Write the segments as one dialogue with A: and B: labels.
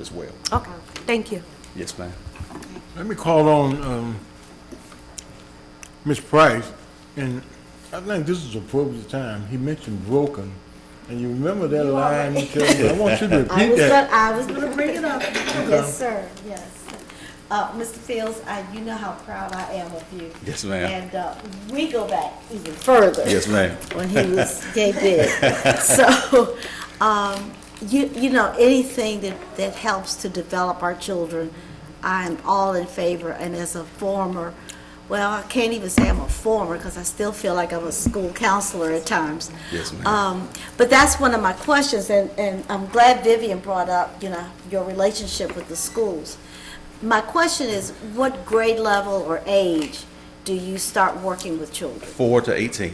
A: as well.
B: Okay, thank you.
A: Yes, ma'am.
C: Let me call on, um, Ms. Price, and I think this is appropriate time, he mentioned broken, and you remember that line, he told me, I want you to
D: I
C: repeat
D: was, gonna-
C: that.
D: I was gonna bring it up. Yes, sir, yes. Uh, Mr. Fields, I, you know how proud I am of you.
A: Yes, ma'am.
D: And, uh, we go back even further.
A: Yes, ma'am.
D: When he was gay big. So, um, you, you know, anything that, that helps to develop our children, I am all in favor. And as a former, well, I can't even say I'm a former because I still feel like I'm a school counselor at times.
A: Yes, ma'am.
D: Um, But that's one of my questions, and, and I'm glad Vivian brought up, you know, your relationship with the schools. My question is, what grade level or age do you start working with children?
A: Four to eighteen.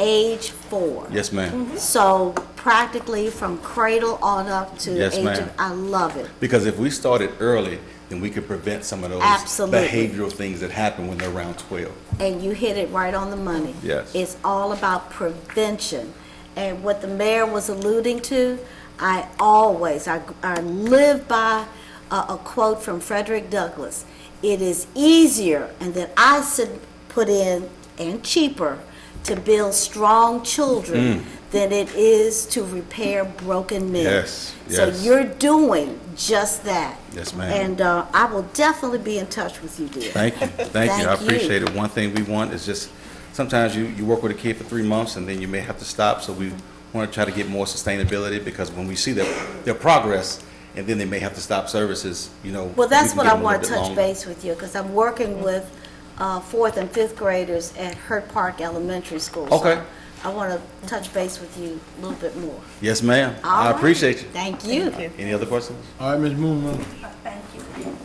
D: Age four?
A: Yes,
D: Mm.
A: ma'am.
D: So practically from cradle on up to
A: Yes,
D: age
A: ma'am.
D: of, I love it.
A: Because if we started early, then we could prevent some of those
D: Absolutely.
A: behavioral things that happen when they're around twelve.
D: and you hit it right on the money.
A: Yes.
D: It's all about prevention. And what the mayor was alluding to, I always, I, I live by a, a quote from Frederick Douglass. It is easier, and that I should put in, and cheaper, to build strong
A: Mm.
D: children than it is to repair broken men.
A: Yes, yes.
D: So you're doing just that.
A: Yes, ma'am.
D: And, uh, I will definitely be in touch with you, dear.
A: Thank you, thank you, I
D: Thank you.
A: appreciate it. One thing we want is just, sometimes you, you work with a kid for three months and then you may have to stop, so we want to try to get more sustainability, because when we see their, their progress, and then they may have to stop services, you know.
D: Well, that's
A: we can
D: what
A: give
D: I
A: them a little
D: want to
A: bit
D: touch
A: longer.
D: base with you, because I'm working with uh, fourth and fifth graders at Hurt Park Elementary School. So
A: Okay.
D: I want to touch base with you a little bit more.
A: Yes, ma'am,
D: All
A: I
D: right.
A: appreciate you.
D: Thank you.
A: Any other questions?
C: All right, Ms. Moon,
E: Thank you.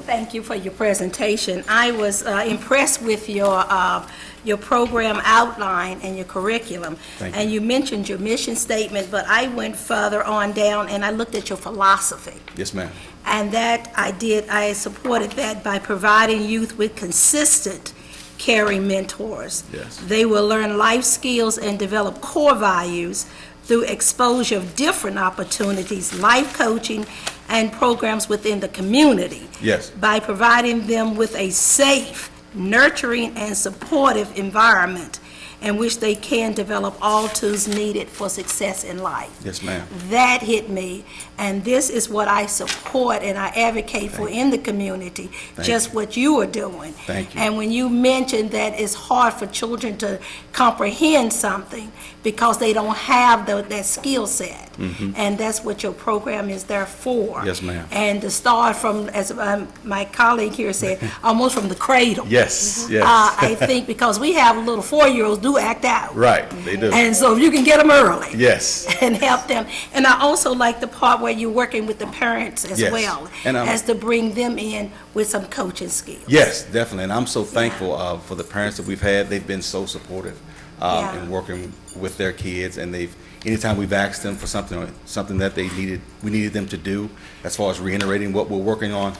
E: Thank you for your presentation. I was uh, impressed with your, uh, your program outline and your curriculum.
A: Thank
E: And you mentioned your mission statement, but I went further on down and I looked at your philosophy.
A: Yes, ma'am.
E: And that I did, I supported that by providing youth with consistent caring mentors.
A: Yes.
E: They will learn life skills and develop core values through exposure of different opportunities, life coaching, and programs within the community.
A: Yes.
E: By providing them with a safe, nurturing, and supportive environment in which they can develop all tools needed for success in life.
A: Yes, ma'am.
E: That hit me, and this is what I support and I advocate for in the community, just what you are doing.
A: Thank you.
E: And when you mentioned that it's hard for children to comprehend something because they don't have tho- that skill set. And that's what your program is there for.
A: Mm-hmm. Yes, ma'am.
E: And to start from, as um, my colleague here said, almost from the cradle.
A: Yes, yes.
E: Uh, I think because we have little four-year-olds do act out.
A: Right, they do.
E: And so if you can get them early
A: Yes,
E: and help them. And I also like the part where you're working with the parents as
A: Yes.
E: well,
A: And um, I'm-
E: as to bring them in with some coaching skills.
A: yes, definitely, and I'm so thankful uh, for the parents that we've had. They've been so supportive um,
E: Yeah.
A: in working with their kids, and they've anytime we've asked them for something, or something that they needed, we needed them to do as far as reiterating what we're working on.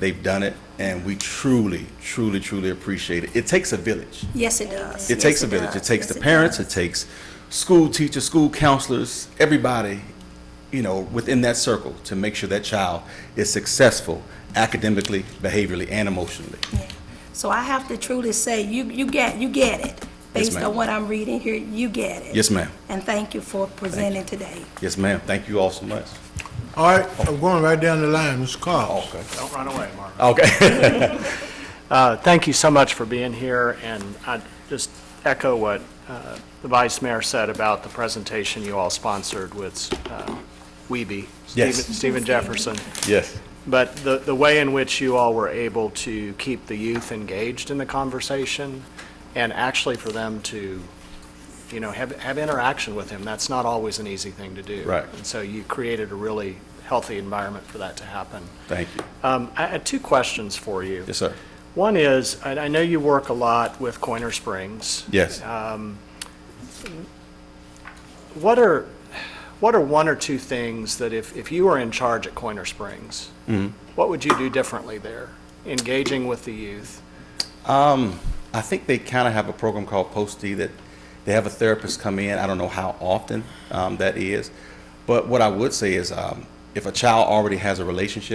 A: They've done it, and we truly, truly, truly appreciate it. It takes a village.
E: Yes, it does.
A: It
E: Yes,
A: takes a village. It
E: does.
A: takes
E: Yes,
A: the parents, it
E: does.
A: takes school teachers, school counselors, everybody, you know, within that circle to make sure that child is successful academically, behaviorally, and emotionally.
E: Yeah. So I have to truly say, you, you get, you get it.
A: Yes,
E: Based
A: ma'am.
E: on what I'm reading here, you get it.
A: Yes, ma'am.
E: And thank you for presenting today.
A: Yes, ma'am. Thank you all so much.
C: all right, I'm going right down the line, Ms. Carl.
A: Okay.
F: Don't run away, Mark.
A: Okay.
F: Uh, Thank you so much for being here, and I just echo what uh, the Vice Mayor said about the presentation you all sponsored with uh, Weeby,
A: Yes.
F: Stephen- Stephen Jefferson.
A: Yes.
F: But the, the way in which you all were able to keep the youth engaged in the conversation, and actually for them to, you know, have, have interaction with him, that's not always an easy thing to do.
A: Right.
F: And so you created a really healthy environment for that to happen.
A: Thank you.
F: Um, I had two questions for you.
A: Yes, sir.
F: One is, I I know you work a lot with Coiner Springs.
A: Yes.
F: What are, what are one or two things that if, if you were in charge at Coiner Springs, what would you do differently there, engaging with the youth?
A: I think they kind of have a program called Post-D that they have a therapist come in. I don't know how often um, that is. But what I would say is um, if a child already has a relationship,